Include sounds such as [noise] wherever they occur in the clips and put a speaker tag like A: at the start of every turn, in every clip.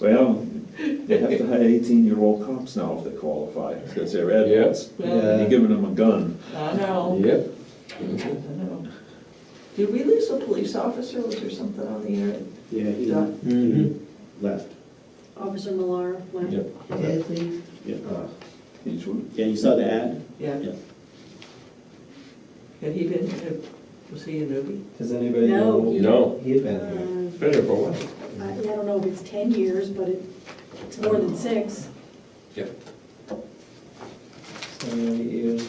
A: Well, they have to hire eighteen-year-old cops now if they qualify, because they're adults. And
B: Yeah.
A: you're giving them a gun.
B: I know,
C: Yep.
B: I know. Did we lose a police officer, was there something on the internet?
D: Yeah, he
B: Done?
E: Mm-hmm.
D: left.
F: Officer Millar left.
D: Yep.
B: Did we?
D: Yeah,
A: He's-
D: Yeah, you saw the ad?
B: Yeah.
D: Yeah.
B: Had he been, uh, was he a newbie?
E: Does anybody
F: No.
E: know?
C: You know,
E: He had
F: Uh,
E: been here.
C: better for what?
F: I I don't know if it's 10 years, but it- it's more than six.
E: Seven, eight years.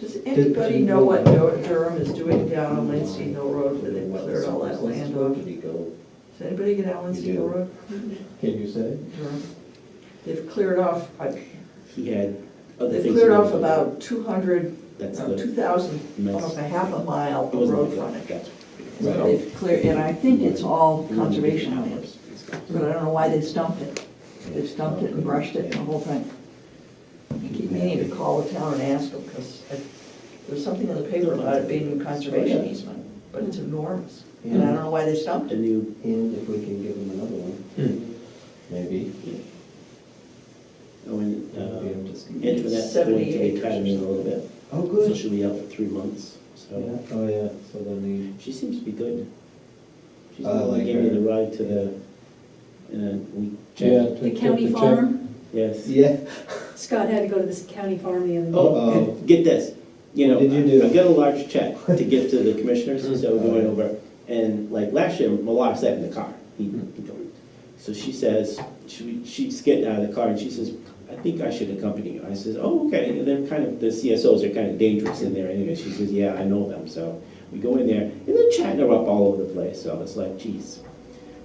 B: Does anybody know what Dur- Durham is doing down on Lansing Hill Road, where they cleared all that land off?
E: Did he go?
B: Does anybody get down Lansing Hill Road,
E: Can you say?
B: Durham? They've cleared off, I-
D: He had other
B: they've
D: things.
B: cleared
D: going
B: off
D: on.
B: about two hundred, uh,
D: That's the.
B: two thousand,
D: mess.
B: almost a half a mile
D: It
B: of
D: wasn't
B: road
D: like that.
B: frontage.
D: Gotcha.
B: So They've cleared, and I think it's all conservation land, but I don't know why they stumped it. They stumped it and brushed it and the whole thing. I keep meaning to call the town and ask them, because there's something in the paper about it being a conservation easement, but it's enormous, and I don't know why they stumped it.
D: And you,
E: And if we can give him another one, maybe.
D: oh, and,
E: That'd be
D: uh,
E: interesting.
D: Antoinette's going to
B: 78
D: be
B: acres or
D: traveling a little bit,
E: Oh,
D: so
E: good.
D: she'll be out for three months,
E: Yeah,
D: so.
E: oh, yeah, so then
D: She seems to be good. She's
E: I
D: the one
E: like
D: that gave me
E: her.
D: the ride to the, in a week
C: Yeah.
D: check.
F: The county farm,
D: Yes.
E: he. Yeah.
F: Scott had to go to this county farm the other day.
D: Oh,
E: Uh-oh.
D: get this, you know,
E: What did you do? Mm-hmm.
D: I got a large check to give
E: [laughs]
D: to the commissioners, so we're going over, and like last year, Malar sat in the car. He, he
E: Mm-hmm.
D: joined. So she says, she, she's getting out of the car, and she says, I think I should accompany you. I says, oh, okay, and they're kind of, the CSOs are kind of dangerous in there anyway. She says, yeah, I know them, so we go in there, and they're chatting her up all over the place, so it's like, geez.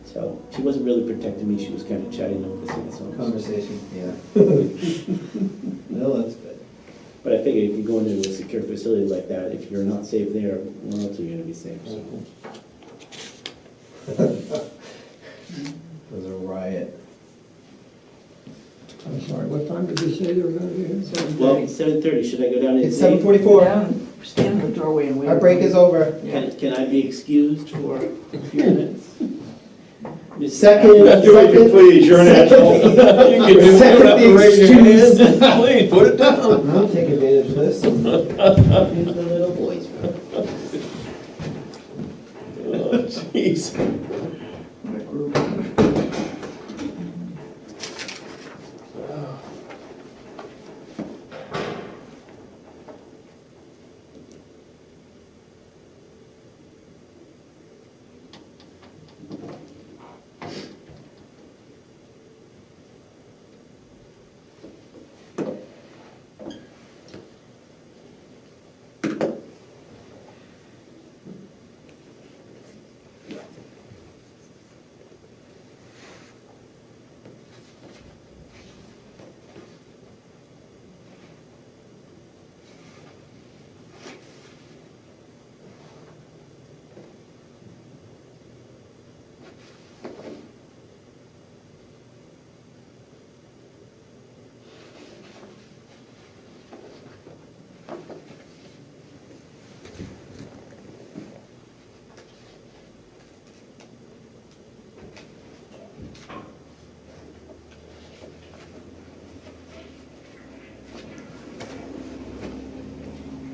D: So she wasn't really protecting me, she was kind of chatting up the CSOs.
E: Conversation, [laughs] yeah. Well, that's good.
D: But I figure if you go into a secure facility like that, if you're not safe there, where else are you gonna be safe? So,
E: It was a riot.
G: I'm sorry, what time did you say you were gonna be here?
D: Well, seven thirty, should I go down and?
E: It's
D: say-
E: seven forty-four.
B: Down, Stand in the doorway and wait.
E: Our break is over.
B: Yeah.
D: Can, can I be excused for a few minutes? Miss-
E: Second,
C: Do what you
E: second.
C: please, you're an
E: [laughs]
C: asshole. You can do
E: Second
C: it,
E: the
C: raise your
E: excuse.
C: hand. Please, put it down.
E: I'll take advantage of this.
D: Here's the little boys.
C: Oh, Jeez.
B: What a group.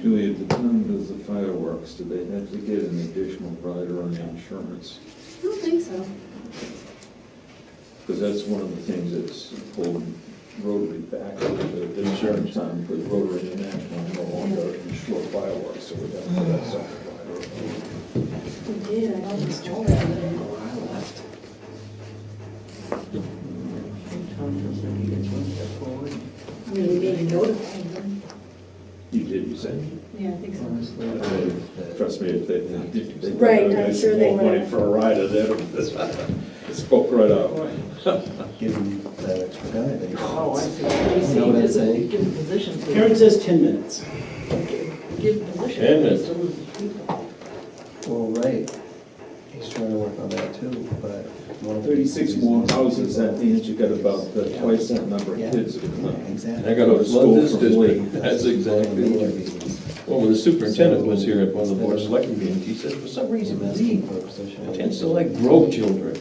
A: Julie, at the time of the fireworks, did they have to get an additional rider on the insurance?
F: I don't think so.
A: Because that's one of the things that's holding Rotary back a little bit, the insurance time, because Rotary International no longer insure fireworks, so we got to put that separate rider.
F: He did, I don't recall that.
B: Tom feels like he gets one step forward.
F: I mean, he made a note of it.
A: You did, you said,
F: Yeah, I think so.
E: Honestly, I believe that-
A: trust me, if they, if they.
F: Right, I'm sure they
A: More money
F: would've.
A: for a rider, they it spoke right out.
E: give him that extra guy that he
B: Oh, I
E: wants.
B: see. You
E: know what I'm
B: see,
E: saying?
B: give him positions. to-
D: Karen says ten minutes.
B: Give position.
C: Ten minutes.
B: to lose people.
E: Well, right, he's trying to work on that too, but. one of the
A: Thirty-six
E: reasons-
A: more houses, that means you got about uh, twice that number of
E: Yeah.
A: kids that come out.
E: Exactly.
C: I gotta flood this [laughs] district. That's
E: One of the
C: exactly
E: major
C: what.
E: reasons.
C: Well, when the superintendent was here at one of the board of selectmen meetings, he said, for some reason, Lee
E: Asking for a position.
C: tends to like grow children.